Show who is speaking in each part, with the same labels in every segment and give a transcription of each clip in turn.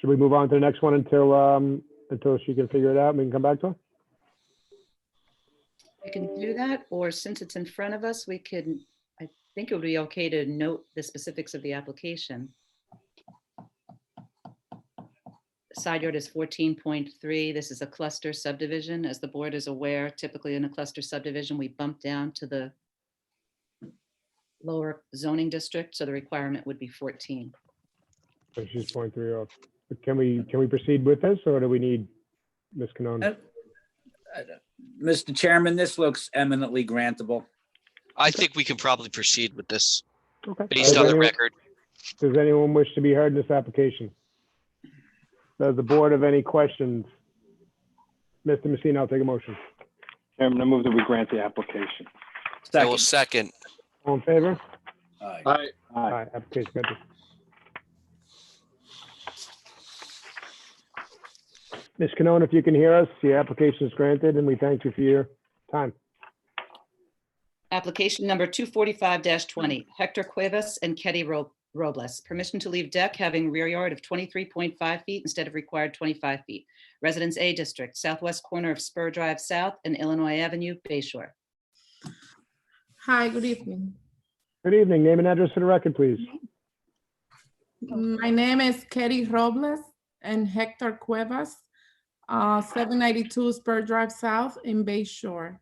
Speaker 1: Should we move on to the next one until, um, until she can figure it out and we can come back to her?
Speaker 2: We can do that, or since it's in front of us, we can, I think it would be okay to note the specifics of the application. Side yard is fourteen point three. This is a cluster subdivision. As the board is aware, typically in a cluster subdivision, we bump down to the lower zoning district, so the requirement would be fourteen.
Speaker 1: So she's point three off. Can we, can we proceed with this or do we need Ms. Canone?
Speaker 3: Uh, Mr. Chairman, this looks eminently grantable.
Speaker 4: I think we can probably proceed with this
Speaker 1: Okay.
Speaker 4: based on
Speaker 1: Does
Speaker 4: the
Speaker 1: anyone-
Speaker 4: record.
Speaker 1: Does anyone wish to be heard in this application? Does the board have any questions? Mr. Messina, I'll take a motion.
Speaker 5: Chairman, I move that we grant the application.
Speaker 4: I will
Speaker 3: Second.
Speaker 4: second.
Speaker 1: All in favor?
Speaker 3: Aye.
Speaker 5: Aye.
Speaker 1: Aye, application granted. Ms. Canone, if you can hear us, your application is granted and we thank you for your time.
Speaker 2: Application number two forty-five twenty, Hector Cuevas and Ketty Ro- Robles. Permission to leave deck having rear yard of twenty-three point five feet instead of required twenty-five feet. Residence A District, southwest corner of Spur Drive South and Illinois Avenue, Bay Shore.
Speaker 6: Hi, good evening.
Speaker 1: Good evening. Name and address for the record, please.
Speaker 6: My name is Katie Robles and Hector Cuevas, uh, 792 Spur Drive South in Bay Shore.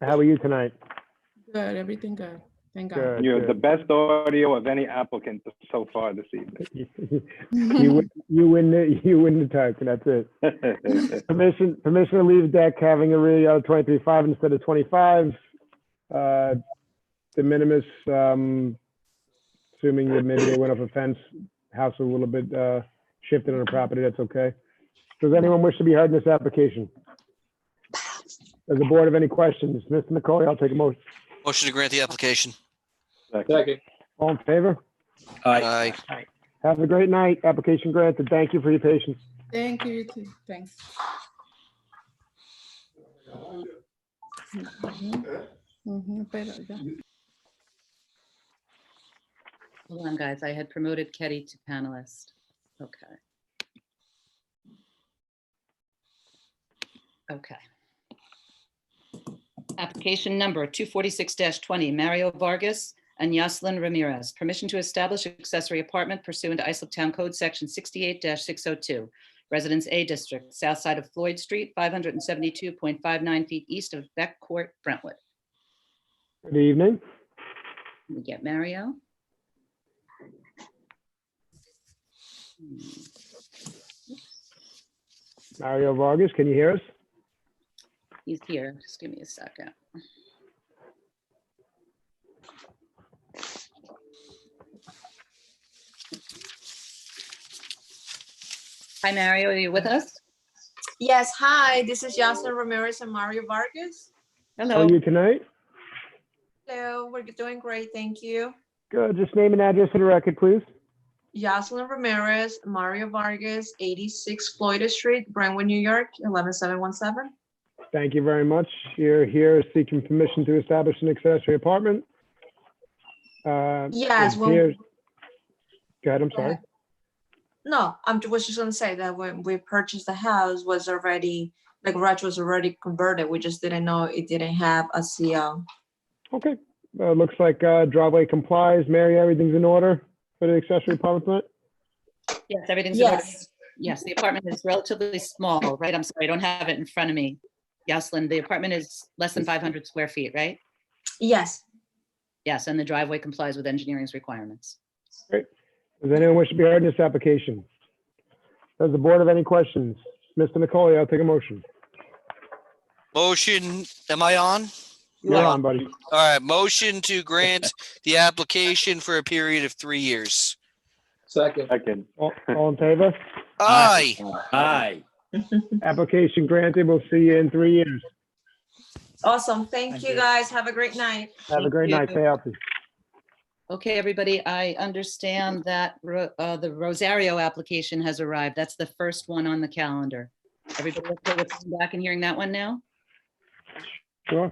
Speaker 1: How are you tonight?
Speaker 6: Good, everything good. Thank God.
Speaker 1: Good,
Speaker 5: You're the
Speaker 1: good.
Speaker 5: best audio of any applicant so far this evening.
Speaker 1: You win, you win, the- you win the tug, and that's it. Permission, permission to leave deck having a rear yard of twenty-three five instead of twenty-five. Uh, De minimis, um, assuming that maybe they went up a fence, house a little bit, uh, shifted on the property, that's okay. Does anyone wish to be heard in this application? Does the board have any questions? Mr. McCoy, I'll take a motion.
Speaker 4: Motion to grant the application.
Speaker 5: Second.
Speaker 1: All in favor?
Speaker 3: Aye.
Speaker 4: Aye.
Speaker 1: Have a great night. Application granted. Thank you for your patience.
Speaker 6: Thank you, you too. Thanks. Mhm. Mhm, pero ya.
Speaker 2: Hold on, guys, I had promoted Ketty to panelist. Okay. Okay. Application number 246-20, Mario Vargas and Yaslin Ramirez. Permission to establish accessory apartment pursuant to Islip Town Code Section 68-602. Residence A District, south side of Floyd Street, 572.59 feet east of Beck Court, Brentwood.
Speaker 1: Good evening.
Speaker 2: Can We get Mario.
Speaker 1: Mario Vargas, can you hear us?
Speaker 2: He's here. Just give me a second. Hi, Mario, are you with us?
Speaker 7: Yes, hi, this is Yasser Ramirez and Mario Vargas.
Speaker 1: How
Speaker 2: Hello.
Speaker 1: are you tonight?
Speaker 7: Hello, we're doing great, thank you.
Speaker 1: Good. Just name and address for the record, please.
Speaker 7: Jocelyn Ramirez, Mario Vargas, 86 Floyd Street, Brentwood, New York, 11117.
Speaker 1: Thank you very much. You're here seeking permission to establish an accessory apartment. Uh,
Speaker 7: Yes,
Speaker 1: it
Speaker 7: well-
Speaker 1: appears- Go ahead, I'm
Speaker 7: Go
Speaker 1: sorry.
Speaker 7: ahead. No, I'm, ju- was just gonna say that when we purchased the house was already, the garage was already converted. We just didn't know it didn't have a CO.
Speaker 1: Okay, Uh, looks like uh, driveway complies. Mary, everything's in order for the accessory apartment? tonight?
Speaker 2: Yes, everything's. in order.
Speaker 7: Yes,
Speaker 2: Yes, the apartment is relatively small, right? I'm sorry, I don't have it in front of me. Yaslin, the apartment is less than 500 square feet, right?
Speaker 7: yes,
Speaker 2: Yes, and the driveway complies with engineering's requirements.
Speaker 1: Does anyone wish to be heard in this application? Does the board have any questions? Mr. Nicoli, I'll take a motion.
Speaker 4: Motion, am I on?
Speaker 1: You're on, buddy.
Speaker 4: All right, motion to grant the application for a period of three years.
Speaker 5: Second.
Speaker 1: All all in favor?
Speaker 4: Aye.
Speaker 3: Aye.
Speaker 1: Application granted. We'll see you in three years.
Speaker 7: awesome. Thank you, guys. Have a great night.
Speaker 1: Have a great night.
Speaker 2: you.
Speaker 1: Stay healthy.
Speaker 2: Okay, everybody, I understand that Ro- uh, the Rosario application has arrived. That's the first one on the calendar. Everybody okay with coming back and hearing that one now?
Speaker 1: Sure.